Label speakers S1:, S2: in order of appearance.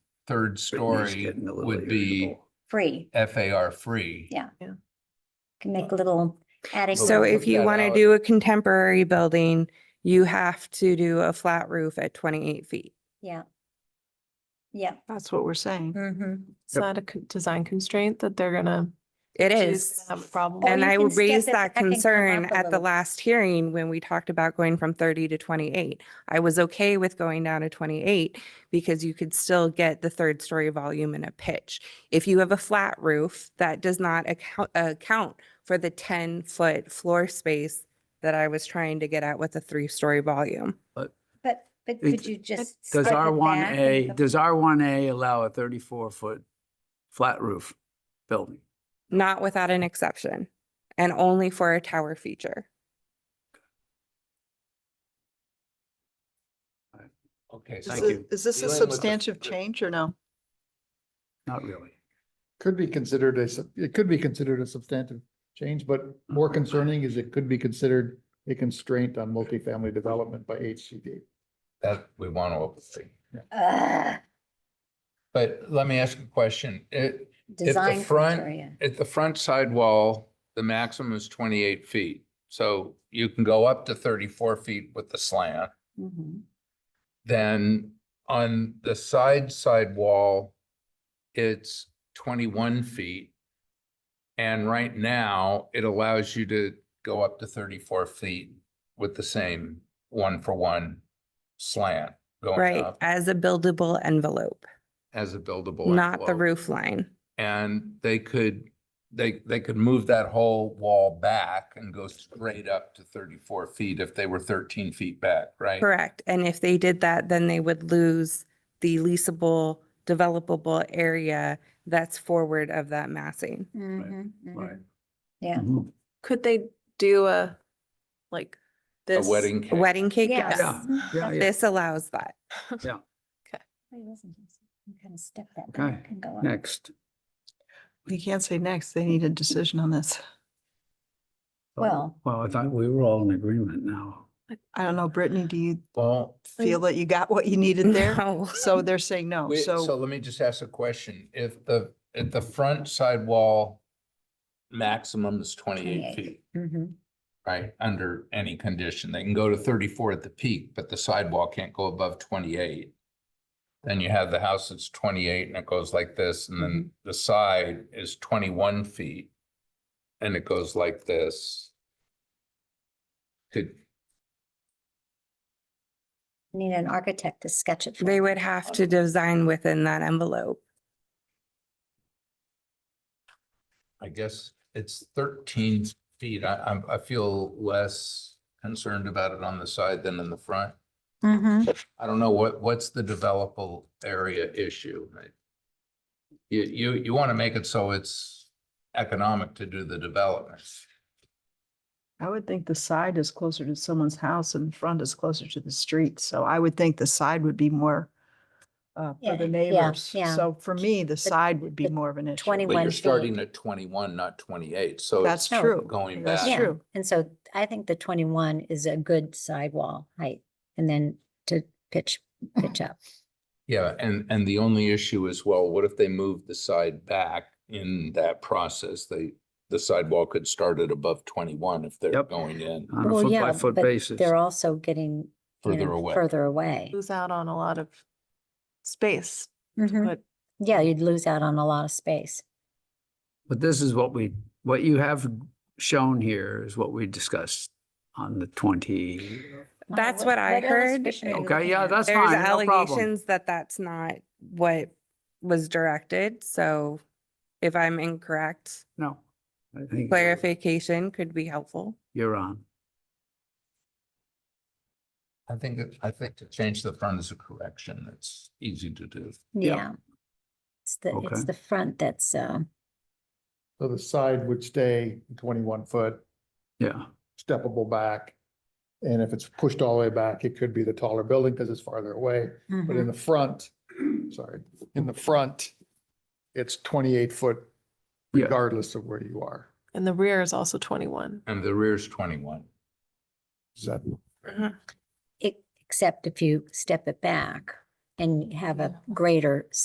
S1: third story
S2: getting a little
S1: would be
S2: irritable.
S3: free,
S1: FAR free.
S3: Yeah. can make a little attic.
S1: So
S4: So
S1: we'll
S4: if
S1: work
S4: you
S1: that
S4: want to
S1: out.
S4: do a contemporary building, you have to do a flat roof at twenty-eight feet.
S3: Yeah. Yeah.
S5: That's what we're saying.
S3: Mm-hmm.
S5: It's
S2: Yep.
S5: not a con- design constraint that they're gonna.
S4: It
S5: she's
S4: is.
S5: gonna Have a problem.
S3: Or
S4: And
S3: you
S4: I
S3: can
S4: would
S3: step
S4: raise
S3: it
S4: that
S3: back and come
S4: concern
S3: up a
S4: at the
S3: little.
S4: last hearing when we talked about going from thirty to twenty-eight. I was okay with going down to twenty-eight because you could still get the third story volume and a pitch. If you have a flat roof, that does not account, account for the ten-foot floor space that I was trying to get at with a three-story volume.
S3: But, but
S2: It-
S3: could you just?
S2: Does
S3: spread
S2: R
S3: it
S2: one
S3: back
S2: A,
S3: and-
S2: does R one A allow a thirty-four foot flat roof building?
S4: Not without an exception and only for a tower feature.
S1: Okay,
S5: Is
S1: so
S2: Thank
S5: it-
S2: you.
S5: Is this a
S1: Dealing with the-
S5: substantive change or no?
S2: Not really.
S6: Could be considered a, sub- it could be considered a substantive change, but more concerning is it could be considered a constraint on multifamily development by HCD.
S1: that we want to avoid.
S3: Ugh,
S1: But let me ask a question. It,
S3: Design
S1: front-
S3: criteria.
S1: at the front side wall, the maximum is twenty-eight feet. So you can go up to thirty-four feet with the slant.
S3: Mhm.
S1: Then on the side side wall, it's twenty-one feet. And right now, it allows you to go up to thirty-four feet with the same one-for-one slant going
S4: Right,
S1: up
S4: as a buildable envelope,
S1: as a buildable.
S4: not the
S1: envelope.
S4: roof line.
S1: And they could, they, they could move that whole wall back and go straight up to thirty-four feet if they were thirteen feet back, right?
S4: Correct. And if they did that, then they would lose the leasable, developable area that's forward of that massing.
S3: Mhm, mhm.
S2: Right.
S3: Yeah.
S2: Mhm.
S5: Could they do a, like,
S1: A
S5: this?
S1: wedding cake.
S4: Wedding cake,
S3: Yes.
S4: yes.
S2: Yeah, yeah.
S4: This allows that.
S3: Wait, listen, listen. I'm gonna step that
S2: Okay,
S3: back and go up.
S2: Next.
S5: We can't say next. They need a decision on this.
S3: Well-
S2: Well, I thought we were all in agreement now.
S5: I don't know, Brittany, do you
S1: Well,
S5: feel that you got what you needed there?
S4: No.
S5: So they're saying no,
S1: Wait, so
S5: Oh, so
S1: let me just ask a question. If the, if the front side wall maximum is twenty-eight
S3: 28.
S1: feet,
S2: Mm-hmm.
S3: Mhm.
S1: right, under any condition, they can go to thirty-four at the peak, but the sidewall can't go above twenty-eight. Then you have the house that's twenty-eight and it goes like this, and then the side is twenty-one feet. And it goes like this. Could,
S3: Need an architect to sketch it. for
S4: They
S3: you.
S4: would have to design within that envelope.
S1: I guess it's thirteen feet. I, I'm, I feel less concerned about it on the side than in the front.
S5: Mhm.
S1: I don't know, what, what's the developable area issue? right? You, you, you want to make it so it's economic to do the development.
S5: I would think the side is closer to someone's house and the front is closer to the street. So I would think the side would be more uh,
S3: Yeah, yeah,
S5: for the neighbors.
S3: yeah.
S5: So for me, the side would be
S3: the
S5: more of an issue.
S1: But
S3: 21
S1: you're
S3: 21 feet.
S1: starting at twenty-one, not twenty-eight, so.
S5: That's
S1: it's
S5: true.
S1: Going
S5: That's
S1: back.
S5: true.
S3: And so I think the twenty-one is a good sidewall height and then to pitch, pitch up.
S1: Yeah, and, and the only issue is, well, what if they move the side back in that process? They, the sidewall could start at above twenty-one if they're
S2: Yep.
S1: going in
S2: On a
S3: Well,
S2: foot
S3: yeah,
S2: by foot
S3: but
S2: basis.
S3: They're also getting, you
S1: further
S3: know,
S1: away.
S3: further away.
S5: Lose out on a lot of space.
S3: Mhm.
S5: put-
S3: Yeah, you'd lose out on a lot of space.
S2: But this is what we, what you have shown here is what we discussed on the twenty.
S3: Wow,
S4: That's what I heard.
S3: illustration are you
S2: Okay,
S3: looking
S2: yeah,
S3: at?
S2: that's
S4: There's
S2: fine, no problem.
S4: allegations that that's not what was directed. So if I'm incorrect,
S2: No. I think you're-
S4: clarification could be helpful.
S2: You're on.
S1: I think, that- I think to change the front is a correction. It's easy to do.
S2: Yeah.
S3: Yeah. It's the,
S2: Okay.
S3: it's the front that's, uh,
S6: So the side would stay twenty-one foot,
S2: Yeah,
S6: steppable back. And if it's pushed all the way back, it could be the taller building because it's farther away.
S3: mm-hmm.
S6: But in the front, sorry, in the front, it's twenty-eight foot
S2: Yeah.
S6: regardless of where you are.
S5: And the rear is also twenty-one.
S1: And the rear's twenty-one.
S6: Does that
S3: ex- except if you step it back and have a greater